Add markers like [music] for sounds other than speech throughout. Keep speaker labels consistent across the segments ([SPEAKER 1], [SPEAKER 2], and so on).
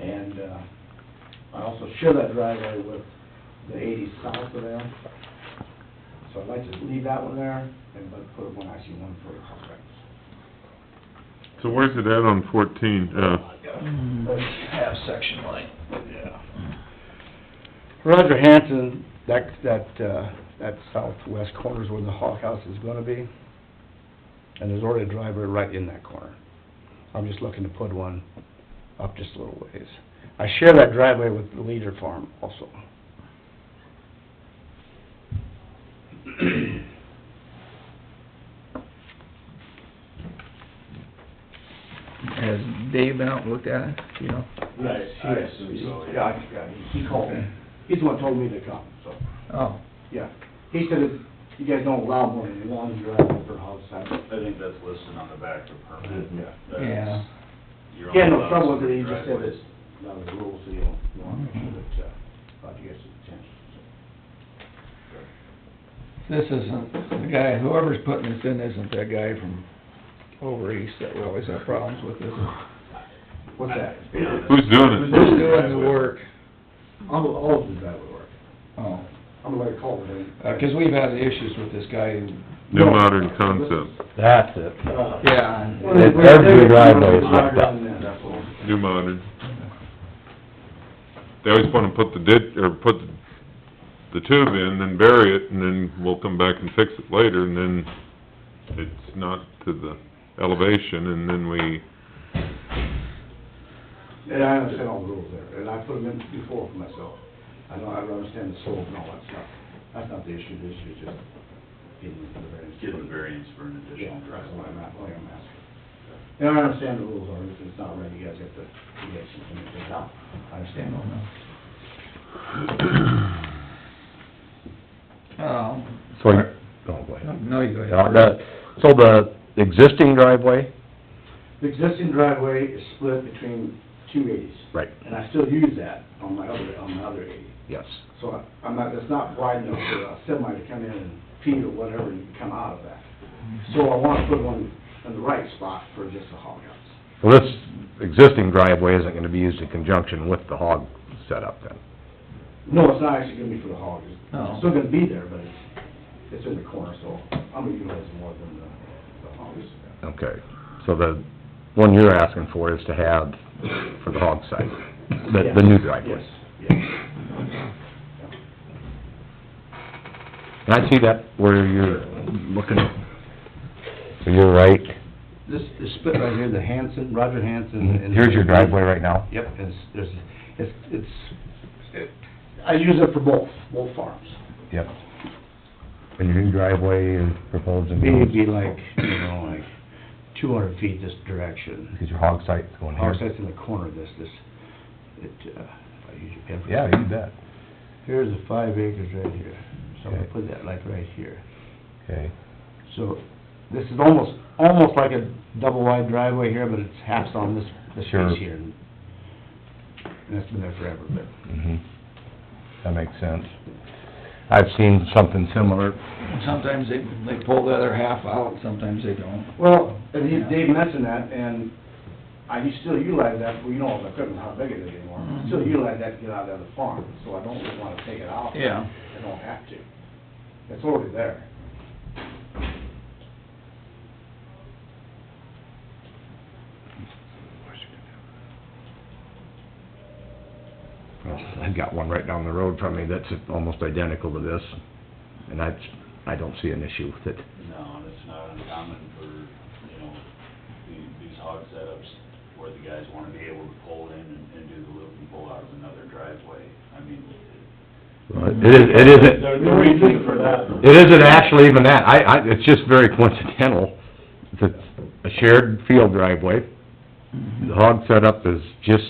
[SPEAKER 1] And, uh, I also share that driveway with the eighty south of there. So I'd like to leave that one there and but put one, actually one for the
[SPEAKER 2] So where's it at on fourteen, uh,
[SPEAKER 3] Half section line.
[SPEAKER 1] Yeah.
[SPEAKER 4] Roger Hanson, that, that, uh, that southwest corner is where the hog house is gonna be. And there's already a driveway right in that corner. I'm just looking to put one up just a little ways. I share that driveway with the Leader Farm also.
[SPEAKER 3] Has Dave been out and looked at it, you know?
[SPEAKER 1] Yes,
[SPEAKER 5] I- I
[SPEAKER 1] yes.
[SPEAKER 5] assume so, yeah.
[SPEAKER 1] Yeah, I- yeah, he- he called me. He's the one who told me to come, so,
[SPEAKER 3] Oh,
[SPEAKER 1] yeah. He said, it's- you guys don't allow more than one driveway per house. I-
[SPEAKER 5] I think that's listed on the back of the permit.
[SPEAKER 1] Yeah.
[SPEAKER 5] That's-
[SPEAKER 3] yeah,
[SPEAKER 5] you're
[SPEAKER 1] He had no
[SPEAKER 5] allowed
[SPEAKER 1] trouble with
[SPEAKER 5] some
[SPEAKER 1] it, he just said
[SPEAKER 5] driveways.
[SPEAKER 1] it's, that was the rule, so you don't, you want to make sure that, uh, about you guys' attention, so.
[SPEAKER 3] this isn't, the guy, whoever's putting this in isn't that guy from over east that we always have problems with, is [laughs] it?
[SPEAKER 1] What's that?
[SPEAKER 5] Yeah.
[SPEAKER 2] who's doing
[SPEAKER 3] Who's
[SPEAKER 2] it?
[SPEAKER 3] doing the work?
[SPEAKER 1] All, all of the driveway work.
[SPEAKER 3] Oh,
[SPEAKER 1] I'm gonna let it call it in.
[SPEAKER 3] Uh 'cause we've had issues with this guy who,
[SPEAKER 2] New modern concept,
[SPEAKER 6] That's it.
[SPEAKER 1] Uh,
[SPEAKER 3] yeah, and-
[SPEAKER 1] Well, they're-
[SPEAKER 6] Every
[SPEAKER 1] they're-
[SPEAKER 6] driveway is like that.
[SPEAKER 1] That's all.
[SPEAKER 2] new modern. They always wanna put the ditch, or put the tube in, then bury it, and then we'll come back and fix it later, and then it's not to the elevation, and then we,
[SPEAKER 1] And I understand all the rules there, and I put them in before for myself. I know, I understand the slope and all that stuff. That's not the issue, the issue is just getting the variance.
[SPEAKER 5] Give the variance for an
[SPEAKER 1] Yeah,
[SPEAKER 5] additional
[SPEAKER 1] that's why I'm,
[SPEAKER 5] driveway.
[SPEAKER 1] not- why I'm asking. And I understand the rules are, if it's not right, you guys have to, you guys can figure it out. I understand all
[SPEAKER 3] [coughs]
[SPEAKER 1] that.
[SPEAKER 3] um,
[SPEAKER 6] So, you- oh, go ahead.
[SPEAKER 3] no, you go ahead.
[SPEAKER 6] Now, the- So the existing driveway?
[SPEAKER 1] The existing driveway is split between two eighties.
[SPEAKER 6] Right.
[SPEAKER 1] And I still use that on my other, on my other eighty.
[SPEAKER 6] Yes.
[SPEAKER 1] So I- I'm not, it's not wide enough for a semi to come in and feed or whatever and come out of that. So I want to put one in the right spot for just the hog house.
[SPEAKER 6] Well, this existing driveway isn't gonna be used in conjunction with the hog setup then?
[SPEAKER 1] No, it's not actually gonna be for the hog, it's
[SPEAKER 3] Oh.
[SPEAKER 1] it's still gonna be there, but it's, it's in the corner, so I'm gonna utilize it more than the, the hogs.
[SPEAKER 6] Okay, so the one you're asking for is to have for the hog site, the, the new driveway?
[SPEAKER 1] Yes, yes.
[SPEAKER 6] And I see that where you're looking, you're right,
[SPEAKER 1] [laughs] This, this split right here, the Hanson, Roger Hanson
[SPEAKER 6] Mm-hmm. here's your driveway right now?
[SPEAKER 1] Yep, it's, there's, it's, it's, it- I use it for both, both farms.
[SPEAKER 6] Yep. And your new driveway is proposed and...
[SPEAKER 1] It'd be like, you know, like two hundred feet this direction.
[SPEAKER 6] Because your hog site's going here.
[SPEAKER 1] Hog site's in the corner of this, this, it, uh, I use your pen for.
[SPEAKER 6] Yeah, you bet.
[SPEAKER 1] Here's the five acres right here, so I'm gonna
[SPEAKER 6] Okay.
[SPEAKER 1] put that like right here.
[SPEAKER 6] Okay.
[SPEAKER 1] So, this is almost, almost like a double wide driveway here, but it's half on this, this
[SPEAKER 6] Sure.
[SPEAKER 1] piece here. And that's been there forever, but.
[SPEAKER 6] Mhm. That makes sense. I've seen something similar.
[SPEAKER 3] Sometimes they, they pull the other half out, sometimes they don't.
[SPEAKER 1] Well, and he, Dave mentioned that, and I u- still utilize that, well, you know, the equipment, how big it is anymore. I
[SPEAKER 6] Mm-hmm.
[SPEAKER 1] Still utilize that to get out of the farm, so I don't really wanna take it out.
[SPEAKER 3] Yeah.
[SPEAKER 1] I don't have to. It's already there.
[SPEAKER 6] I've got one right down the road from me that's almost identical to this, and I, I don't see an issue with it.
[SPEAKER 5] No, and it's not uncommon for, you know, the- these hog setups where the guys wanna be able to pull in and, and do the loop and pull out of another driveway. I mean,
[SPEAKER 6] It is, it isn't,
[SPEAKER 5] the reasoning for that.
[SPEAKER 6] it isn't actually even that. I, I, it's just very coincidental. It's a shared field driveway.
[SPEAKER 3] Mm-hmm.
[SPEAKER 6] The hog setup is just,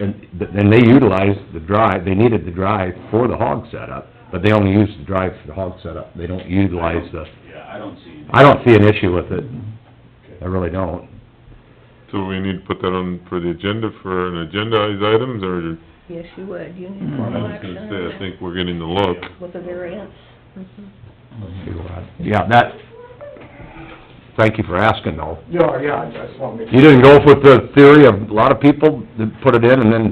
[SPEAKER 6] and, and they utilized the drive, they needed the drive for the hog setup, but they only use the drive for the hog setup. They don't utilize the,
[SPEAKER 5] Yeah, I don't see.
[SPEAKER 6] I don't see an issue with it. I really don't.
[SPEAKER 2] so we need to put that on for the agenda, for an agendized items, or,
[SPEAKER 7] Yes, you would, you need
[SPEAKER 2] Mm-hmm. I
[SPEAKER 7] formal
[SPEAKER 2] was
[SPEAKER 7] action
[SPEAKER 2] gonna
[SPEAKER 7] on
[SPEAKER 2] say, I
[SPEAKER 7] that
[SPEAKER 2] think we're getting the look.
[SPEAKER 7] with a variance.
[SPEAKER 6] Yeah, that, thank you for asking though.
[SPEAKER 1] Yeah, yeah, I just wanna make
[SPEAKER 6] You didn't go with the theory of a lot of people that put it in and then